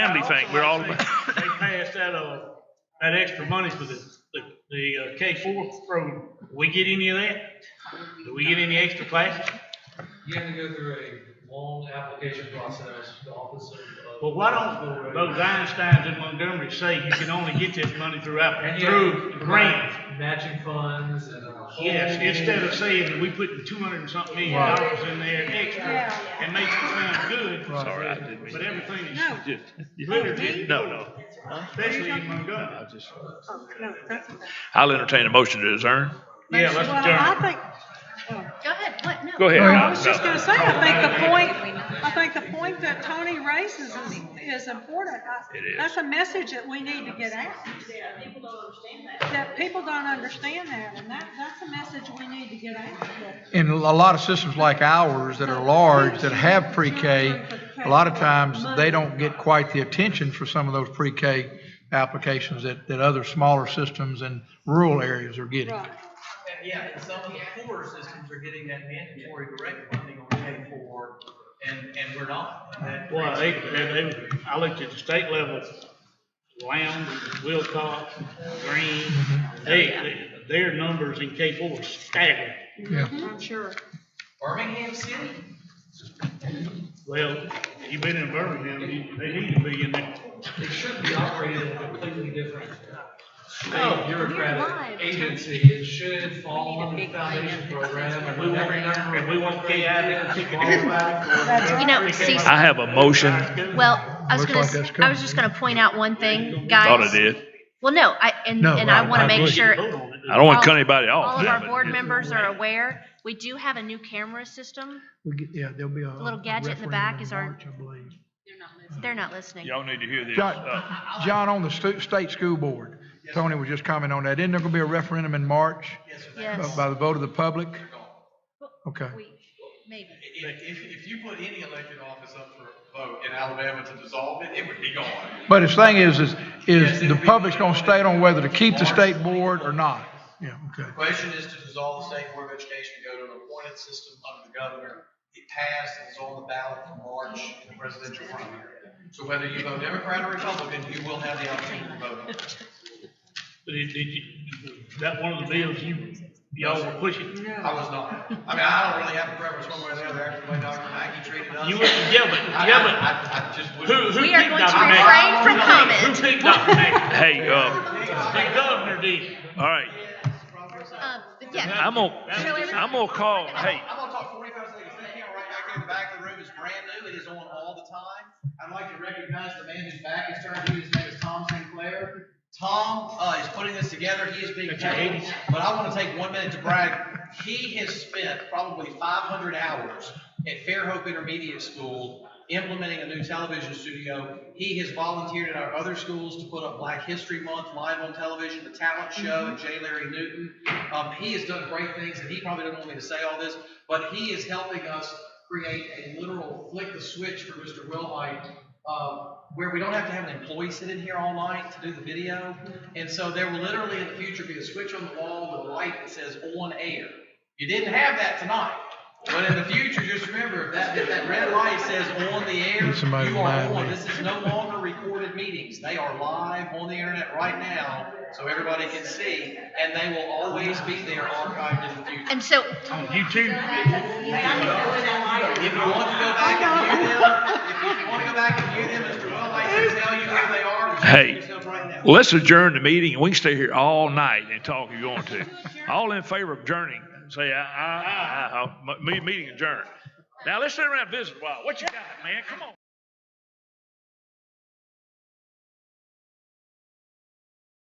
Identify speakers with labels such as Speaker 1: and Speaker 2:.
Speaker 1: family thing, we're all,
Speaker 2: They
Speaker 1: about-
Speaker 2: passed that, uh, that extra money for the, the, the uh, K four program. We get any of that? Do we get any extra classes?
Speaker 3: You have to go through a long application process, the office of.
Speaker 2: Well, why don't those Einsteins in Montgomery say you can only get this money through, app-
Speaker 3: And you have to
Speaker 2: through
Speaker 3: provide
Speaker 2: grants?
Speaker 3: Matching funds and. a whole-
Speaker 2: Yes, instead of saying that we putting two hundred and something million
Speaker 4: Right.
Speaker 2: dollars in there extra
Speaker 4: Yeah.
Speaker 2: and makes it sound good.
Speaker 1: sorry, I didn't mean.
Speaker 2: But everything is,
Speaker 4: No.
Speaker 1: Just-
Speaker 2: Literally.
Speaker 1: No, no.
Speaker 2: especially in Montgomery.
Speaker 4: Oh, no, that's okay.
Speaker 1: I'll entertain a motion to adjourn.
Speaker 2: Yeah, let's
Speaker 4: Well,
Speaker 2: adjourn.
Speaker 4: I think, oh.
Speaker 5: Go ahead, what, no.
Speaker 1: Go ahead.
Speaker 4: I was just
Speaker 1: No.
Speaker 4: gonna say, I think the point, I think the point that Tony raises is, is important. I-
Speaker 1: It is.
Speaker 4: That's a message that we need to get out. That people don't understand that, and that, that's a message we need to get out.
Speaker 6: In a lot of systems like ours that are large, that have pre-K, a lot of times, they don't get quite the attention for some of those pre-K applications that, that other smaller systems and rural areas are getting.
Speaker 4: Right.
Speaker 3: Yeah, and some of the poorer systems are getting that mandatory direct funding on K four, and, and we're not. And that
Speaker 2: Well,
Speaker 3: creates-
Speaker 2: they, they, they- I looked at the state level, Lowndes, Wilcox, Green, they,
Speaker 5: Oh,
Speaker 2: they- their numbers in K four is staggering.
Speaker 6: Yeah.
Speaker 5: Mm-hmm.
Speaker 4: I'm sure.
Speaker 3: Birmingham City
Speaker 2: Well, you been in Birmingham, you- they need to be in there.
Speaker 3: It should be operated in a completely different
Speaker 5: Oh,
Speaker 3: state
Speaker 5: you're live.
Speaker 3: bureaucratic agency. It should fall
Speaker 5: We
Speaker 3: under
Speaker 5: need a
Speaker 3: the
Speaker 5: big plan.
Speaker 3: foundation program and
Speaker 2: We want-
Speaker 3: every number.
Speaker 2: and we want KI to kick
Speaker 5: You know, see,
Speaker 1: I have a motion,
Speaker 5: well, I was
Speaker 6: Looks
Speaker 5: gonna,
Speaker 6: like that's
Speaker 5: s- I was
Speaker 6: coming.
Speaker 5: just gonna point out one thing, guys.
Speaker 1: thought I did.
Speaker 5: Well, no, I, and,
Speaker 6: No,
Speaker 5: and I
Speaker 6: right,
Speaker 5: wanna
Speaker 6: I
Speaker 5: make
Speaker 6: agree.
Speaker 5: sure
Speaker 2: Hold on.
Speaker 1: I don't want to cut
Speaker 5: All-
Speaker 1: anybody off.
Speaker 5: all of
Speaker 1: now,
Speaker 5: our
Speaker 1: but
Speaker 5: board
Speaker 1: it-
Speaker 5: members are aware. We do have a new camera system.
Speaker 6: We get- Yeah, there'll be a.
Speaker 5: little gadget in the back is our- They're not listening.
Speaker 1: Y'all need to hear this.
Speaker 6: John,
Speaker 1: Uh,
Speaker 6: John, on the stu- state school board, Tony was just commenting on that. Isn't there gonna be a referendum in March by-
Speaker 5: Yes.
Speaker 6: by the vote of the public? Okay.
Speaker 5: We- Maybe.
Speaker 7: If, if, if you put any elected office up for a vote in Alabama to dissolve it, it would be gone.
Speaker 6: But his thing is, is, is the public's gonna state on whether to keep the state board or not. Yeah, okay.
Speaker 7: The Question is to dissolve the state board of education, and go to an appointed system under the governor. It passed, it was on the ballot for March in the presidential primary. So whether you vote Democrat or Republican, you will have the opportunity to vote on it.
Speaker 2: But it- did you, is that one of the bills you, y'all were pushing?
Speaker 7: I was not. I mean, I don't really have a preference one way or the other after the way Dr. Mackey treated us.
Speaker 2: You were, yeah, but,
Speaker 7: I-
Speaker 2: yeah,
Speaker 7: I, I, I just
Speaker 2: but who,
Speaker 7: wouldn't.
Speaker 2: who
Speaker 5: We are
Speaker 2: picked
Speaker 5: going to
Speaker 2: Dr. Mackey?
Speaker 5: refrain from
Speaker 2: Who
Speaker 5: comment.
Speaker 2: picked Dr. Mackey?
Speaker 1: Hey, um,
Speaker 2: The governor did.
Speaker 1: all right,
Speaker 5: Um, but yeah,
Speaker 1: I'm gonna, I'm gonna call, hey,
Speaker 7: I'm gonna talk forty-five seconds, that camera right back in the back of the room is brand new, it is on all the time. I'd like to recognize the man who's back, his turn, his name is Tom Sinclair. Tom, uh, is putting this together, he is being
Speaker 2: That's your
Speaker 7: paid,
Speaker 2: eighties.
Speaker 7: but I wanna take one minute to brag. He has spent probably five hundred hours at Fairhope Intermediate School implementing a new television studio. He has volunteered at our other schools to put up Black History Month live on television, the talent
Speaker 2: Mm-hmm.
Speaker 7: show, and J. Larry Newton. Um, he has done great things, and he probably doesn't want me to say all this, but he is helping us create a literal flick the switch for Mr. Wilhite, um, where we don't have to have an employee sit in here all night to do the video. And so there will literally in the future be a switch on the wall with a light that says on air. You didn't have that tonight, but in the future, just remember, if that, if that red light says on the air,
Speaker 6: Need somebody
Speaker 7: you
Speaker 6: to
Speaker 7: are
Speaker 6: line
Speaker 7: on.
Speaker 6: me.
Speaker 7: This is no longer recorded meetings. They are live on the internet right now, so everybody can see, and they will always be there archived in the future.
Speaker 5: and so,
Speaker 2: You too.
Speaker 7: If you want to go back and view them, if you want to go back and view them, Mr. Welllight can tell you where they are. but you
Speaker 1: Hey.
Speaker 7: can do so right now.
Speaker 1: let's adjourn the meeting, and we can stay here all night and talk if you want to. All in favor of adjourning, say aye, aye, aye, aye, me, meeting adjourned. Now, let's sit around and visit a while, what you got, man, come on.